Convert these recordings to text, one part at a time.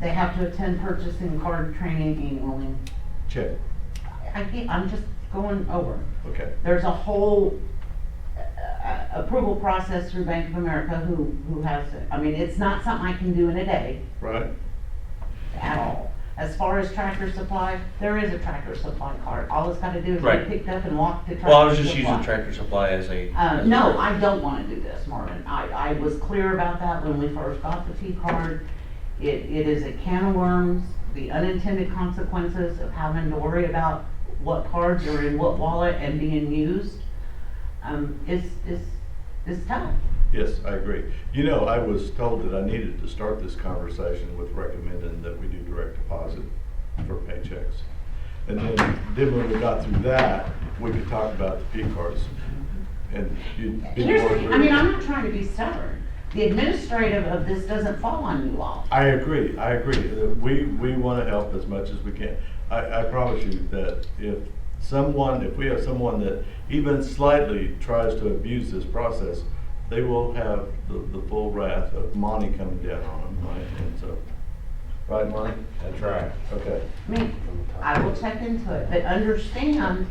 They have to attend purchasing card training annually. Check, I can't, I'm just going over. okay. There's a whole uh, approval process through Bank of America who, who has it. I mean, it's not something I can do in a day Right, at all. As far as tractor supply, there is a tractor supply card. All it's gotta do is Right. be picked up and walk to tractor supply. Well, I was just using Tractor Supply as a. Uh, as a- no, I don't wanna do this, Marvin. I, I was clear about that when we first got the T card. It, it is a can of worms, the unintended consequences of having to worry about what cards are in what wallet and being used. Um, it's, it's, it's tough. yes, I agree. You know, I was told that I needed to start this conversation with recommending that we do direct deposit for paychecks. And then, then when we got through that, we could talk about the P cards. And you'd be Here's, more. the- I mean, I'm not trying to be stubborn. The administrative of this doesn't fall on you all. I agree, I agree. Uh, We, we want to help as much as we can. I, I promise you that if someone, if we have someone that even slightly tries to abuse this process, they will have the, the full wrath of Monty coming down on them, right? And so, right, Monty? That's right. Okay. I mean, I will check into it, but understand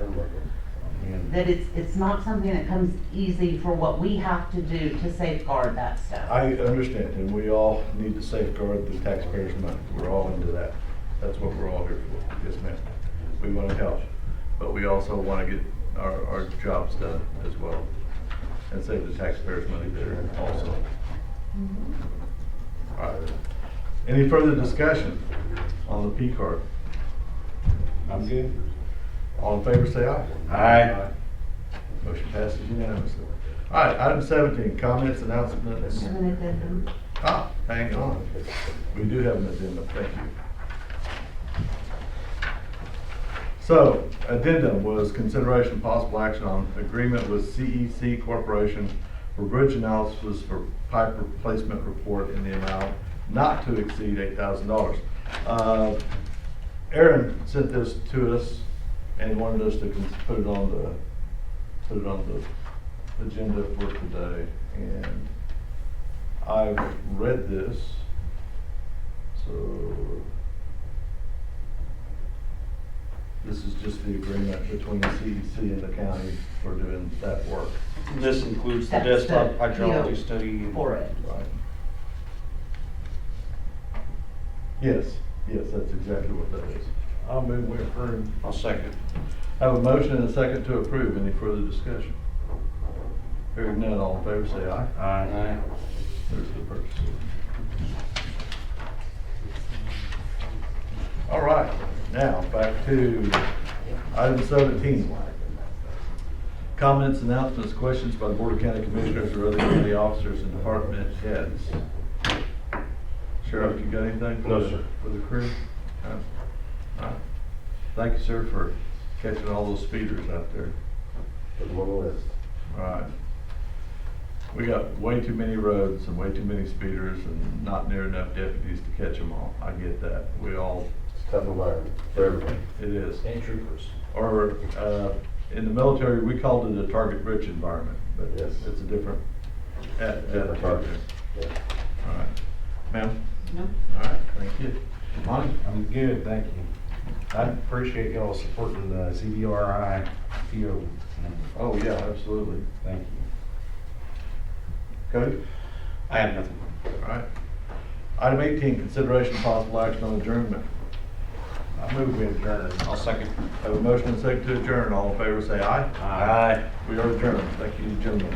that it's, it's not something that comes easy for what we have to do to safeguard that stuff. I understand, and we all need to safeguard the taxpayers' money. We're all into that. That's what we're all here for. Yes, ma'am. We want to help, but we also want to get our, our jobs done as well and save the taxpayers' money there also. All right. Any further discussion on the P card? I'm good. All in favor, say aye. Aye. Motion passes unanimously. All right, item seventeen, comments, announcements, Have an addendum. Ah, hang on. We do have an addendum, thank you. So, addendum was consideration possible action on agreement with CEC Corporation for bridge analysis for pipe replacement report in the amount not to exceed eight thousand dollars. Uh, Aaron sent this to us and wanted us to cons- put it on the, put it on the agenda for today. And I've read this, so this is just the agreement between the CEC and the county for doing that work. This includes the That's the desktop hydrology deal study. and- for it. Right. Yes, yes, that's exactly what that is. I'll move we approve. I'll second. I have a motion and a second to approve. Any further discussion? Hearing none, all in favor, say aye. Aye. There's the purchase. All right, now back to item seventeen. Comments, announcements, questions by the Board of County Commissioners or other county officers and department heads. Sheriff, you got anything? for No, the- sir. For the crew? No? All right. Thank you, sir, for catching all those speeders out there. Put them on the list. Right. We got way too many roads and way too many speeders and not near enough deputies to catch them all. I get that. We all, It's a tough environment for everybody. it is. And troopers. Or, uh, in the military, we called it a target-rich environment, but Yes. it's a different, at, Different target. Yeah. All right. Ma'am? No. All right, thank you. Monty? I'm good, thank you. I appreciate y'all supporting the CBRI PO. Oh, yeah, absolutely. Thank you. Cody? I have nothing. All right. Item eighteen, consideration of possible action on adjournment. I move we adjourn. I'll second. Have a motion and second to adjourn. All in favor, say aye. Aye. We are adjourned. Thank you, gentlemen.